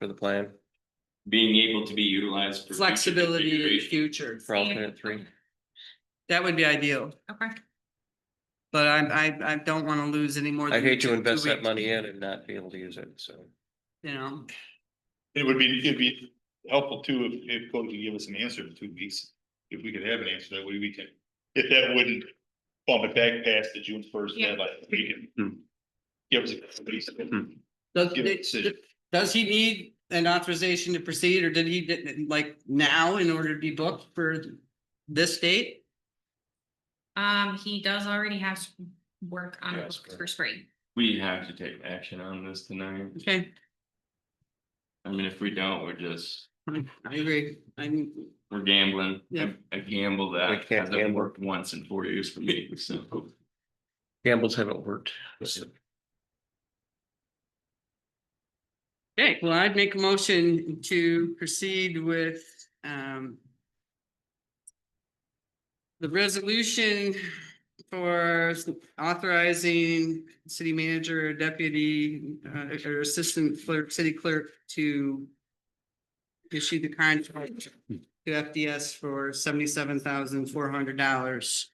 for the plan being able to be utilized. for future flexibility in the configuration. future. for alternate three? That would be ideal, Okay, but I, I, I don't wanna lose any more. I than hate to two invest that weeks, money in and not be able to use it, so. You know, It would be, it'd be helpful too, if, if Cody could give us an answer in two weeks, if we could have an answer, that way we can, if that wouldn't bump it back past the June first Yeah. deadline, we Hmm. can. Give us a, please, does, give a decision. does he need an authorization to proceed or did he, did- like, now in order to be booked for this date? um, he does already have s- work on Yes, books correct. for spring. We have to take action on this tonight. Okay, I mean, if we don't, we're just, I I agree, I mean, we're gambling. Yeah. A gamble We that can't hasn't gamble. worked once in four years for me, so. Gambles haven't worked. okay, well, I'd make a motion to proceed with, um. The resolution for authorizing city manager, deputy, uh, or assistant clerk, city clerk to. Issue the contract to FDS for seventy-seven thousand four hundred dollars.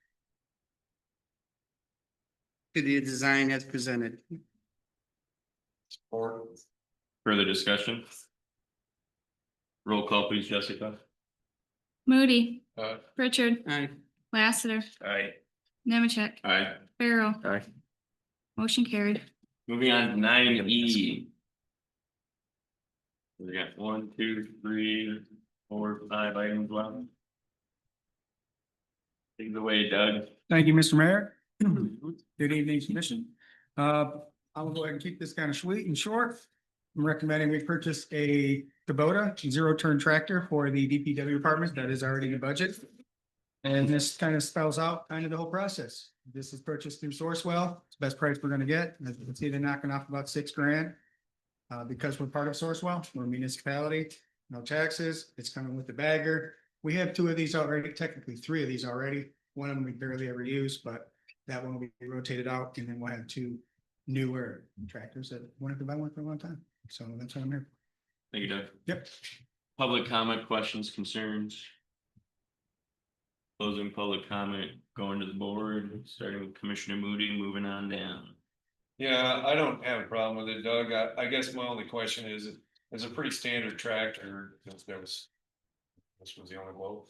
To the design as presented. Further discussion? Roll call please, Jessica. Moody, Aye. Richard, Aye. Lassiter, Aye. Nemecheck, Aye. Farrell, Aye. motion carried. Moving on to nine E. We got one, two, three, four, five items left. Take it away, Doug. Thank you, Mr. Mayor. Good evening, Commission. Uh, I will go ahead and keep this kind of sweet and short. I'm recommending we purchase a Kubota zero-turn tractor for the DPW department that is already in the budget. And this kind of spells out kind of the whole process. This is purchased through Sourcewell. It's the best price we're gonna get. As you can see, they're knocking off about six grand. Uh, because we're part of Sourcewell, we're a municipality, no taxes, it's coming with the bagger. We have two of these already, technically three of these already. One of them we barely ever use, but that one will be rotated out and then we'll have two newer tractors that wanted to buy one for a long time. So that's what I'm here. Thank you, Doug. for. Yep. Public comment, questions, concerns? Closing public comment, going to the board, starting with Commissioner Moody, moving on down. Yeah, I don't have a problem with it, Doug. I, I guess my only question is, it's a pretty standard tractor, since there was. This was the only quote.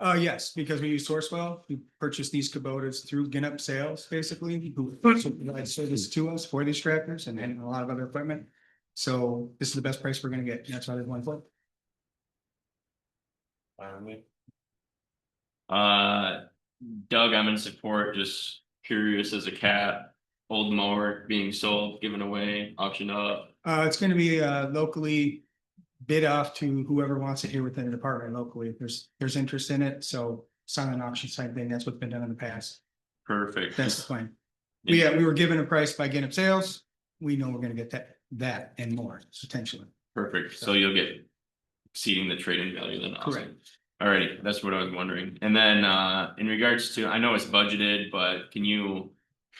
Uh, yes, because we use Sourcewell, we purchase these Kubotas through Ginup Sales, basically, who provide service to us for these tractors and then a lot of other equipment. So this is the best price we're gonna get. and That's why there's one foot. Finally, Uh, Doug, I'm in support, just curious as a cat, old mower being sold, given away, auctioned up. Uh, it's gonna be, uh, locally bid off to whoever wants it here within the department locally. If there's, there's interest in it, so silent auction type thing, that's what's been done in the past. Perfect. That's the plan. We, uh, we were given a price by Ginup Sales. We know we're gonna get that, that and more potentially. Perfect, so you'll get exceeding the trading value then, awesome. Correct. Alrighty, that's what I was wondering, and then uh in regards to, I know it's budgeted, but can you?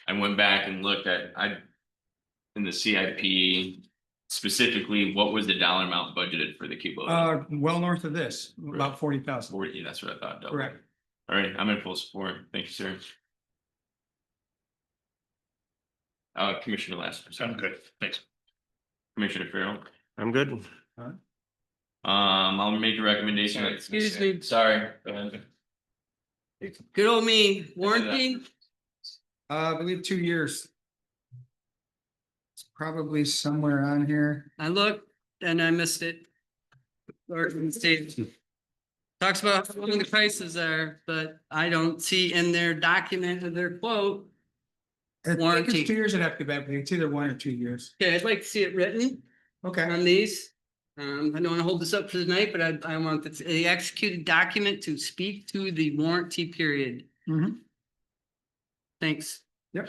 I went back and looked at, I. In the CIP specifically, what was the dollar amount budgeted for the Kubota? Uh, well north of this, about forty thousand. Forty, that's what I thought. double. Correct. Alright, I'm in full support, thank you, sir. Uh, Commissioner Lassiter. sorry. I'm good, thanks. Commissioner Farrell, I'm good. um, I'll make a recommendation, Sorry. Excuse me, sorry, go ahead. good old me, warranty? Uh, I believe two years. It's probably somewhere on here. I looked and I missed it. Or it states- Talks about how long the prices are, but I don't see in their document of their quote. I think it's Warranty. Two years I'd have to go back, but it's either one or two years. Okay, I'd like to see it written Okay, on these. Um, I don't want to hold this up for tonight, but I, I want the- the executed document to speak to the warranty period. Mhm. Thanks. yep.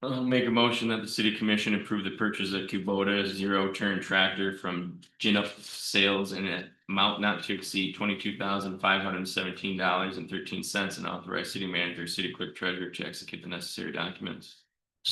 I'll make a motion that the city commission approve the purchase of Kubota zero turn tractor from Ginup Sales in an amount not to exceed twenty-two thousand five hundred and seventeen dollars and thirteen cents and authorize city manager, city clerk treasurer to execute the necessary documents.